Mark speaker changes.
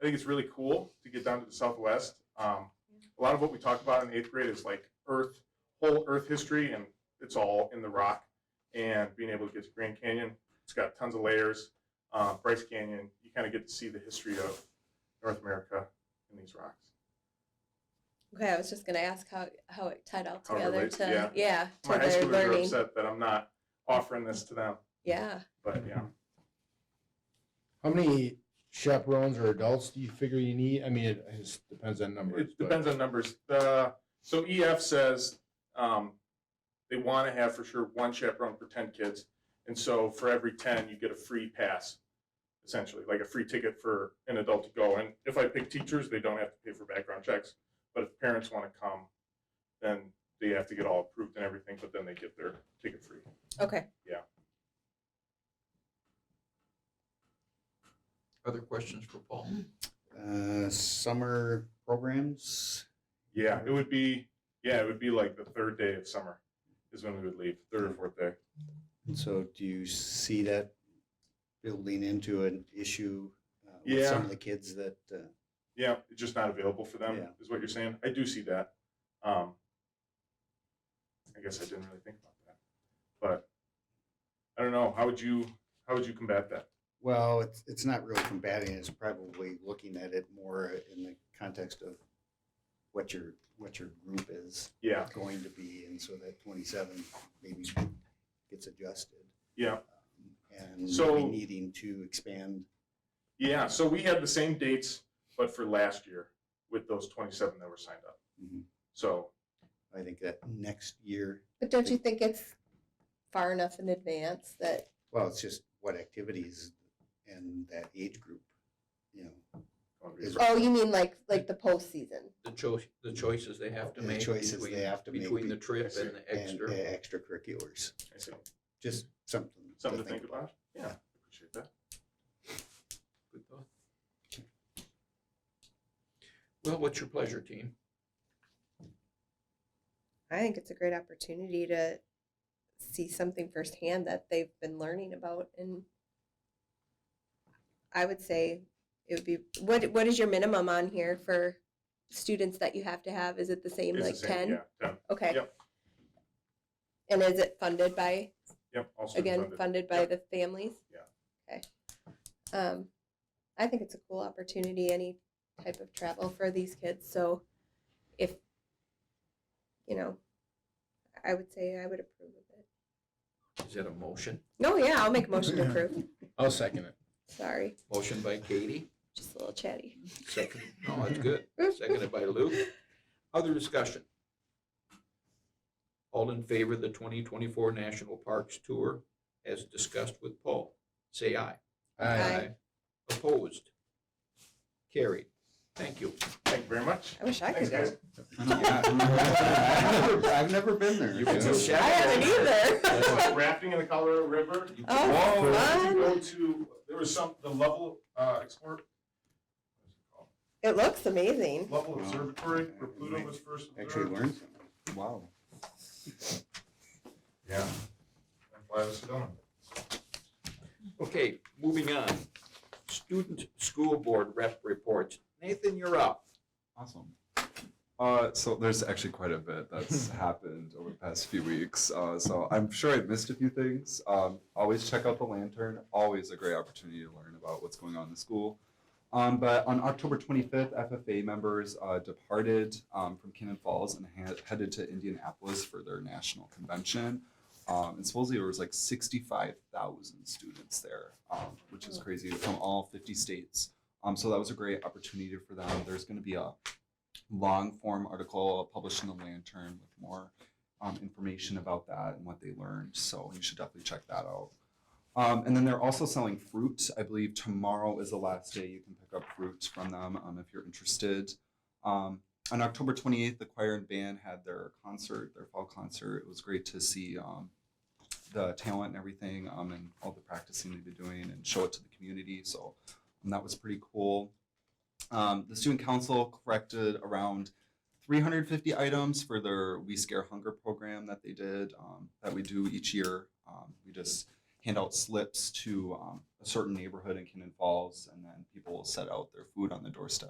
Speaker 1: I think it's really cool to get down to the Southwest. Um, a lot of what we talk about in eighth grade is like Earth, whole Earth history, and it's all in the rock. And being able to get to Grand Canyon, it's got tons of layers. Uh, Bryce Canyon, you kind of get to see the history of North America in these rocks.
Speaker 2: Okay, I was just going to ask how, how it tied all
Speaker 1: How it
Speaker 2: together
Speaker 1: relates,
Speaker 2: to
Speaker 1: yeah.
Speaker 2: yeah, to
Speaker 1: My high
Speaker 2: their
Speaker 1: schoolers are
Speaker 2: learning.
Speaker 1: upset that I'm not offering this to them,
Speaker 2: Yeah,
Speaker 1: but yeah.
Speaker 3: How many chaperones or adults do you figure you need? I mean, it, it just depends on numbers.
Speaker 1: It
Speaker 3: but-
Speaker 1: depends on numbers. The, so EF says um, they want to have for sure one chaperone for 10 kids. And so for every 10, you get a free pass, essentially, like a free ticket for an adult to go. And if I pick teachers, they don't have to pay for background checks. But if parents want to come, then they have to get all approved and everything, but then they get their ticket free.
Speaker 2: okay.
Speaker 4: Other questions for Paul?
Speaker 5: Uh, summer programs.
Speaker 1: Yeah, it would be, yeah, it would be like the third day of summer is when we would leave, third or fourth day.
Speaker 5: And so do you see that building into an issue uh, with some
Speaker 1: Yeah.
Speaker 5: of the kids that uh,
Speaker 1: Yeah, it's just not available for them,
Speaker 5: Yeah.
Speaker 1: is what you're saying. I do see that. Um, I guess I didn't really think about that, but I don't know. How would you how would you combat that?
Speaker 5: well it's, it's not really combating it's probably looking at it more in the context of what your what your group is
Speaker 1: Yeah,
Speaker 5: going to be and so that 27 maybe gets adjusted Um,
Speaker 1: yeah,
Speaker 5: and
Speaker 1: So-
Speaker 5: maybe needing to expand
Speaker 1: yeah. So we had the same dates, but for last year with those 27 that were signed up.
Speaker 5: Mhm.
Speaker 1: So
Speaker 5: i think that next year
Speaker 2: But don't you think it's far enough in advance that
Speaker 5: well it's just what activities and that age group you know
Speaker 1: going to
Speaker 5: Is-
Speaker 1: be
Speaker 2: Oh, you mean like like the postseason?
Speaker 4: The choice, the choices they have to
Speaker 5: The
Speaker 4: make.
Speaker 5: choices they
Speaker 4: between-
Speaker 5: have to make
Speaker 4: Between the
Speaker 5: be-
Speaker 4: trip and the
Speaker 5: and the
Speaker 4: extra.
Speaker 5: extracurriculars.
Speaker 1: I see.
Speaker 5: Just something.
Speaker 1: something to think about. Yeah, appreciate that.
Speaker 4: Good thought. Well, what's your pleasure, team?
Speaker 2: I think it's a great opportunity to see something firsthand that they've been learning about and I would say it would be what what is your minimum on here for students that you have to have? Is it the same
Speaker 1: It's the
Speaker 2: like
Speaker 1: same,
Speaker 2: 10?
Speaker 1: Yeah, 10.
Speaker 2: Okay.
Speaker 1: Yep.
Speaker 2: And is it funded by
Speaker 1: Yep. Also
Speaker 2: again funded by
Speaker 1: Yep.
Speaker 2: the families?
Speaker 1: Yeah.
Speaker 2: Okay. Um I think it's a cool opportunity any type of travel for these kids. So if you know, I would say I would approve of it.
Speaker 4: Is that a motion?
Speaker 2: No, Oh, yeah, I'll make a motion to approve.
Speaker 3: I'll second it.
Speaker 2: Sorry,
Speaker 4: Motion by Katie?
Speaker 2: just a little chatty.
Speaker 4: Second. No, that's good. Seconded by Luke. Other discussion? All in favor of the twenty twenty-four National Parks Tour as discussed with Paul? Say aye.
Speaker 2: Aye.
Speaker 4: Opposed? Carried. Thank you.
Speaker 1: Thank you very much.
Speaker 2: I wish I
Speaker 1: Thanks,
Speaker 2: could
Speaker 1: guys.
Speaker 2: go.
Speaker 5: I've never- I've never been there.
Speaker 4: You can
Speaker 5: so-
Speaker 4: go
Speaker 2: I
Speaker 4: check.
Speaker 2: haven't either.
Speaker 1: rafting in the Colorado River.
Speaker 4: You can-
Speaker 2: Oh,
Speaker 1: Did you
Speaker 2: fun.
Speaker 1: go to, there was some, the Level, uh, Explore, what is it called?
Speaker 2: It looks amazing.
Speaker 1: Level Observatory, where Pluto was first
Speaker 5: Actually
Speaker 1: observed?
Speaker 5: learned something. Wow.
Speaker 1: Yeah. That's why I was going.
Speaker 4: Okay, moving on. Student School Board Rep reports. Nathan, you're up.
Speaker 6: Awesome. Uh, so there's actually quite a bit that's happened over the past few weeks. Uh, so I'm sure I missed a few things. Um, always check out the lantern. Always a great opportunity to learn about what's going on in the school. Um, but on October 25th, FFA members uh, departed um, from Cannon Falls and ha- headed to Indianapolis for their national convention. Um, and supposedly there was like 65,000 students there, um, which is crazy from all 50 states. Um, so that was a great opportunity for them. There's going to be a long form article published in the Lantern with more um, information about that and what they learned. So you should definitely check that out. Um, and then they're also selling fruit. I believe tomorrow is the last day you can pick up fruit from them um, if you're interested. Um, on October 28th, the choir and band had their concert, their fall concert. It was great to see um, the talent and everything um, and all the practicing they've been doing and show it to the community. So um, that was pretty cool. Um, the student council corrected around 350 items for their We Scare Hunger program that they did, um, that we do each year. Um, we just hand out slips to um, a certain neighborhood in Cannon Falls, and then people will set out their food on the doorstep.